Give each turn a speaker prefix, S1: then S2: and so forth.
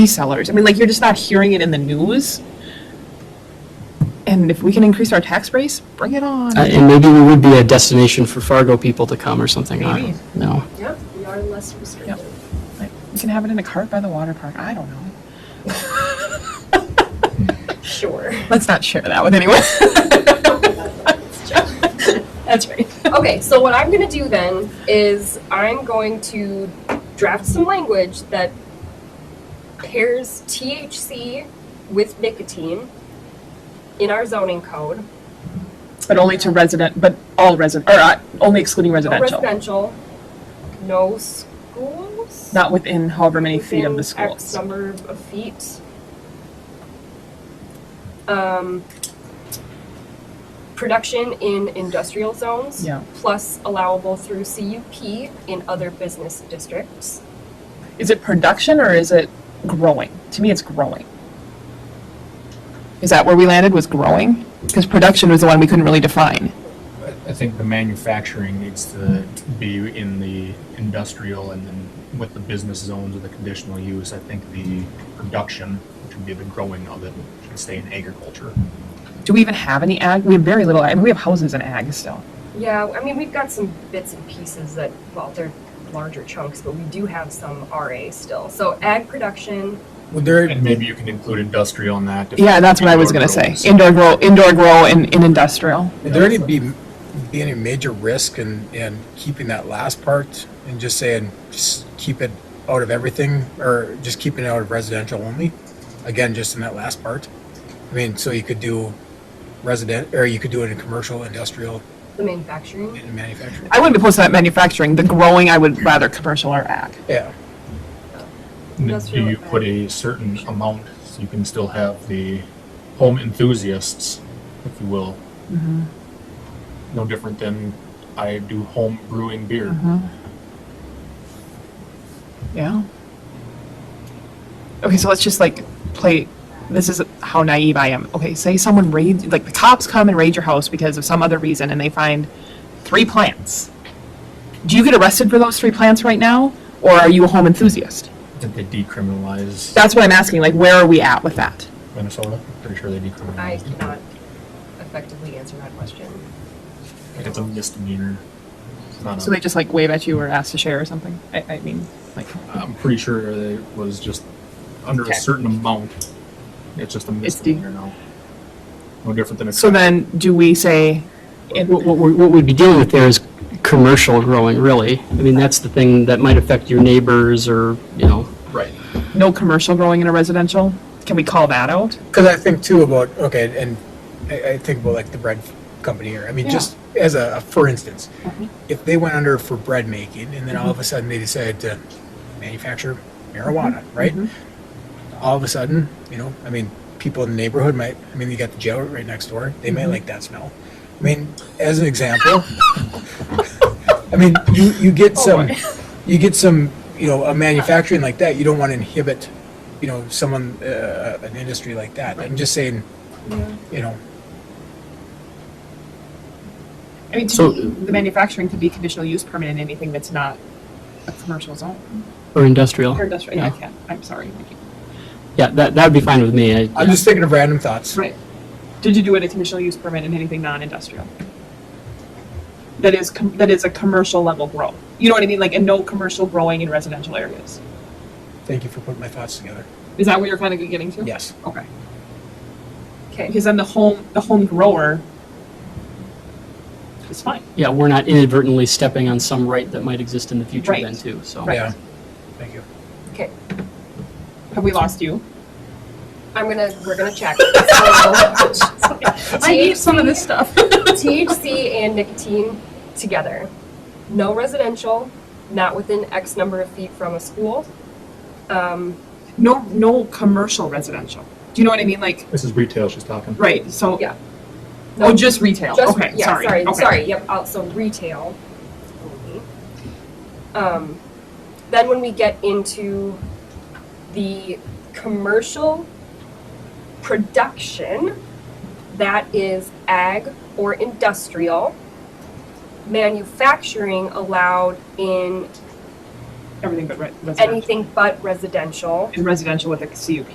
S1: resellers. I mean, like, you're just not hearing it in the news. And if we can increase our tax base, bring it on.
S2: Uh, And maybe we would be a destination for Fargo people to come or something. I
S1: Maybe.
S2: don't know.
S3: Yep, we are less restrictive.
S1: Like, We can have it in a cart by the water park. I don't know.
S3: Sure.
S1: Let's not share that with anyone. That's right.
S3: Okay, so what I'm gonna do then is I'm going to draft some language that pairs THC with nicotine in our zoning code.
S1: But only to resident, but all resident, or uh, only excluding
S3: No
S1: residential,
S3: residential, no schools?
S1: not within however many feet of the
S3: within X
S1: schools.
S3: number of feet. Um, production in industrial zones.
S1: Yeah.
S3: Plus allowable through CUP in other business districts.
S1: Is it production or is it growing? To me, it's growing. Is that where we landed, was growing? Because production was the one we couldn't really define.
S4: I I think the manufacturing needs to be in the industrial and then with the business zones and the conditional use, I think the production, which would be the growing of it, should stay in agriculture.
S1: Do we even have any ag? We have very little, ag. we have houses in ag still.
S3: Yeah, I mean, we've got some bits and pieces that, well, they're larger chunks, but we do have some RA still. So ag production,
S4: Would there? And maybe you can include industrial in that. if-
S1: Yeah, that's what I was gonna say, indoor grow, indoor grow and, and industrial.
S5: Would there any be, be any major risk in, in keeping that last part and just saying, just keep it out of everything or just keeping it out of residential only? Again, just in that last part? I mean, so you could do resident, or you could do it in commercial, industrial,
S3: the manufacturing.
S5: and manufacturing.
S1: I wouldn't be opposed to that manufacturing, the growing, I would rather commercial or ag.
S5: Yeah,
S4: And then Do
S3: Industrial
S4: you put a certain amount, so you can still have the home enthusiasts, if you will?
S1: Mm-hmm.
S4: No different than I do home brewing beer.
S1: Mm-hmm. Yeah. Okay, so let's just like play. This is how naive I am. Okay, say someone raids, like the cops come and raid your house because of some other reason and they find three plants. Do you get arrested for those three plants right now? Or are you a home enthusiast?
S4: I think they decriminalize
S1: That's what I'm asking. Like, where are we at with that?
S4: Minnesota. I'm pretty sure they decriminalized.
S3: I
S4: it.
S3: cannot effectively answer that question.
S4: It's a misdemeanor. It's not
S1: So
S4: a,
S1: they just like wave at you or ask to share or something? I, I mean, like,
S4: I'm pretty sure it was just under
S1: Okay.
S4: a certain amount. It's just a
S1: It's de-
S4: misdemeanor now. No different than a.
S1: so then do we say, in,
S2: What, what we're- what we'd be dealing with there is commercial growing, really. I mean, that's the thing that might affect your neighbors or, you know,
S4: right.
S1: no commercial growing in a residential? Can we call that out?
S5: because I think too about, okay, and I, I think about like the bread company here. I mean,
S1: Yeah.
S5: just as a, for instance, if they went under for bread making and then all of a sudden they decided to manufacture marijuana, right? All of a sudden, you know, I mean, people in the neighborhood might, I mean, you got the jail right next door, they might like that smell. I mean, as an example, I mean, you, you get
S1: Oh,
S5: some, you get some, you know, a manufacturing like that, you don't want to inhibit, you know, someone, uh, an industry like that. I'm just saying, you know,
S1: I mean,
S2: So-
S1: to me, the manufacturing could be conditional use permit in anything that's not a commercial zone
S2: or industrial.
S1: or industrial, yeah, I
S2: Yeah.
S1: can't, I'm sorry. Nikki.
S2: Yeah, that, that'd be fine with me. I-
S5: I'm just thinking of random thoughts.
S1: Right. Did you do it a conditional use permit in anything non-industrial? That is, com- that is a commercial level grow, you know what I mean, like, and no commercial growing in residential areas?
S5: Thank you for putting my thoughts together.
S1: Is that what you're kind of getting to?
S5: Yes.
S1: Okay,
S3: Okay,
S1: because then the home, the home grower is fine.
S2: Yeah, we're not inadvertently stepping on some right that might exist in the future
S1: Right.
S2: then too, so.
S1: Right.
S5: Yeah. Thank you.
S3: okay.
S1: Have we lost you?
S3: I'm gonna, we're gonna check. I
S1: stuff.
S3: THC and nicotine together. No residential, not within X number of feet from a school. Um,
S1: No, no commercial residential, do you know what I mean, like,
S4: This is retail she's talking.
S1: right, so.
S3: Yeah.
S1: Oh, just retail,
S3: just-
S1: okay,
S3: yeah,
S1: sorry,
S3: sorry,
S1: okay.
S3: sorry, yep, also retail only. Um, then when we get into the commercial production, that is ag or industrial. Manufacturing allowed in everything but re- residential.
S1: anything but residential.
S3: And residential with a CUP.